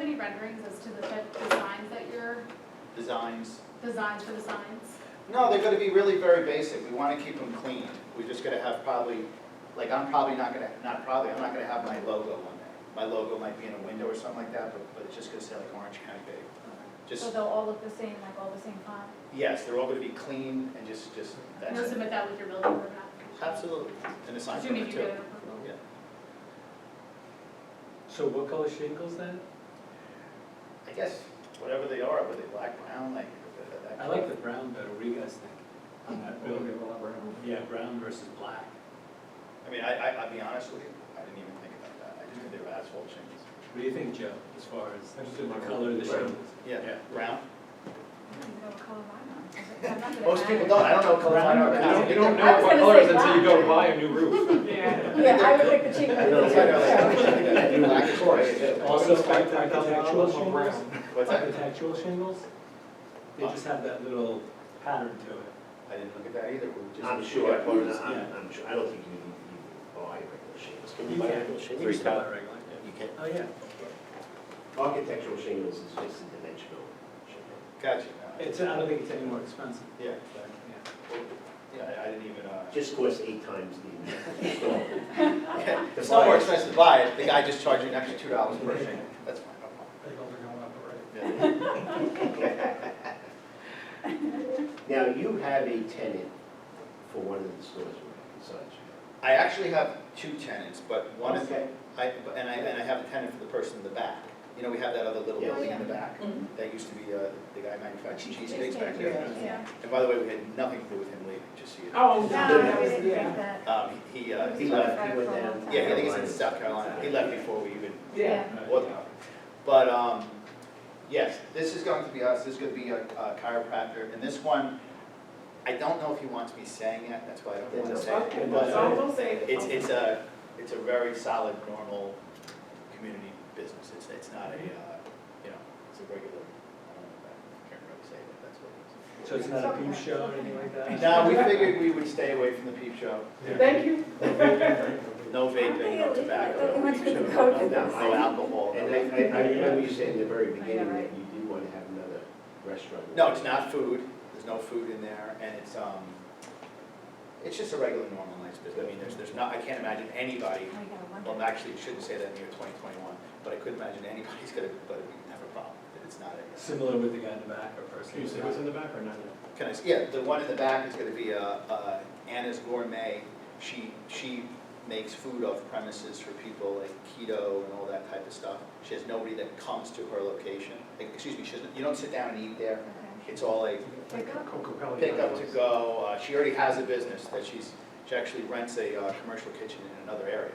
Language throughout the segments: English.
any renderings as to the type of signs that you're, designs. designs for the signs? No, they're gonna be really very basic, we wanna keep them clean, we're just gonna have probably, like, I'm probably not gonna, not probably, I'm not gonna have my logo on there. My logo might be in a window or something like that, but, but it's just gonna say like Orange County Bay. So Just, they'll all look the same, like all the same font? yes, they're all gonna be clean and just, just, And you'll that's it. submit that with your building permit application? Absolutely, and a sign Assuming permit you too. get an approval. Yeah. So what color shingles then? I guess, whatever they are, whether they black, brown, like, uh, that. I like the brown better, what do you guys think? On that building? Yeah, brown versus black. I mean, I, I, I'll be honest with you, I didn't even think about that, I just knew they were asphalt changes. What do you think, Joe, as far as I just did my the color of the brown. shingles? Yeah, Yeah. brown. I don't even know what color mine are. Most people don't, I don't know what colors mine are. but I You don't, you don't I know was what gonna colors say until you go black. buy a new roof. Yeah. Yeah, I would pick the cheap I don't one. Yeah. know. Black is great. Also, Expect that architectural color, more shingles, brown. What's that? architectural shingles, they just have that little pattern to it. I didn't look at that either. We just- I'm sure, Yeah, I'm, photos. I'm- I'm sure, I don't think you need to buy regular shingles. Can You you buy can. regular shingles? Three color regular. You can. Oh, yeah, Architectural shingles is just a dimensional shingle. Gotcha. it's, I don't think it's any more expensive. Yeah, Yeah. yeah, I- I didn't even, uh. Just costs eight times the install. It's not more expensive to buy it, the guy just charged you an extra two dollars per thing. That's fine, no problem. Yeah. Now, you have a tenant for one of the stores, right, besides I actually have two tenants, but you? one is, Okay. I, and I, and I have a tenant for the person in the back. You know, we have that other little Yeah. building in the back, Mm-hmm. that used to be, uh, the guy manufacturing cheesesteaks back there. Yeah. Yeah. And by the way, we had nothing to do with him leaving, just so you know. Oh, No, I didn't think that. Um, he, uh, he He left, left, he went down. yeah, I think he's in South Carolina, he left before we even Yeah. Well, But, um, yes, this is going to be us, this is gonna be a a chiropractor, and this one, I don't know if he wants me saying it, that's why I don't wanna say it. But uh, will say It's, it's a, it's a very solid, normal community business, it's, it's not a, uh, you know, it's a regular, I don't know, I can't really say it, that's what it is. So it's not a peep show or anything like that? Now, we figured we would stay away from the peep show, Thank you. no vaping, no tobacco, no peep show, no- no alcohol. And no- I, I, I remember you saying in the very beginning that right. you do want to have another restaurant. No, it's not food, there's no food in there, and it's, um, it's just a regular normal night's business, I mean, there's, there's not, I can't imagine anybody, I gotta wonder. well, actually, you shouldn't say that in the year twenty twenty-one, but I couldn't imagine anybody's gonna, but we can have a problem, that it's not a, Similar with the guy in the back or person? Can you say what's in the back or not? can I, s- yeah, the one in the back is gonna be, uh, uh, Anna's Gourmet, she, she makes food off premises for people like keto and all that type of stuff, she has nobody that comes to her location, Like, excuse me, she doesn't, you don't sit down and eat there, Okay. it's all like, Pick up. Coca-Cola. pick up to go. Uh, She already has a business that she's, she actually rents a uh, commercial kitchen in another area,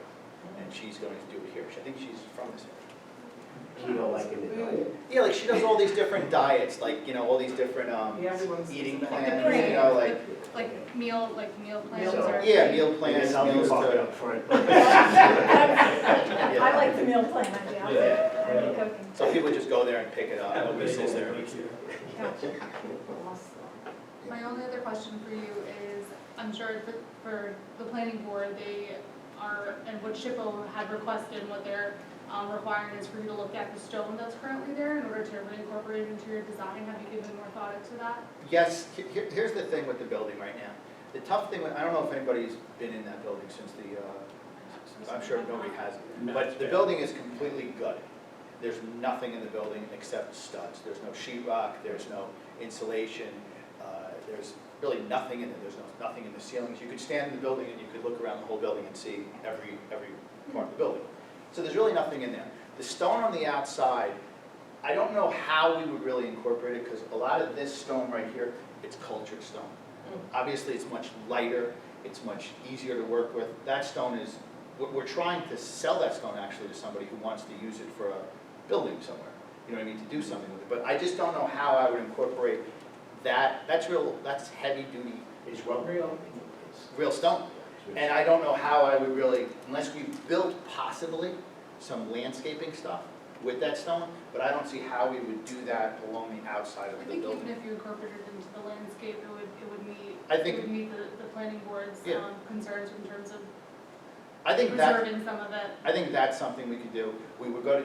and she's going to do it here. She- I think she's from this area. Keto like in the diet. Yeah, like she does all these different diets, like, you know, all these different um, everyone's. eating Right. plans, you know, like, Like meal, like meal plans So- or? yeah, meal Plans, plans, meals meals to. up front. I like the meal plan idea. I'll Yeah. be cooking. So people just go there and pick it up. Have a Nobody bagel sits there. with you. Gotcha. Awesome. My only other question for you is, I'm sure for, for the planning board, they are, and what Shippo had requested, what they're um, requiring is for you to look at the stone that's currently there in order to reincorporate it into your design. Have you given more thought into that? Yes, he- he- here's the thing with the building right now. The tough thing, with- I don't know if anybody's been in that building since the, uh, I'm sure nobody has. No, But it's the bad. building is completely gutted. There's nothing in the building except studs. There's no sheetrock. there's no insulation, uh, there's really nothing in it, there's no- nothing in the ceilings. You could stand in the building and you could look around the whole building and see every, every part of the building. So there's really nothing in there. The stone on the outside, I don't know how we would really incorporate it, because a lot of this stone right here, it's cultured stone. Obviously, it's much lighter, it's much easier to work with. That stone is, we're, we're trying to sell that stone actually to somebody who wants to use it for a building somewhere. You know what I mean, to do something with it, but I just don't know how I would incorporate that, that's real, that's heavy duty, It's rubber. Real. real stone. And I don't know how I would really, unless we built possibly some landscaping stuff with that stone, but I don't see how we would do that along the outside I of the think even building. if you incorporated it into the landscape, it would, it would meet, I it think, would meet the, the planning board's Yeah. um, concerns in terms of I think that, preserving some of that I think that's something we could do. We would go to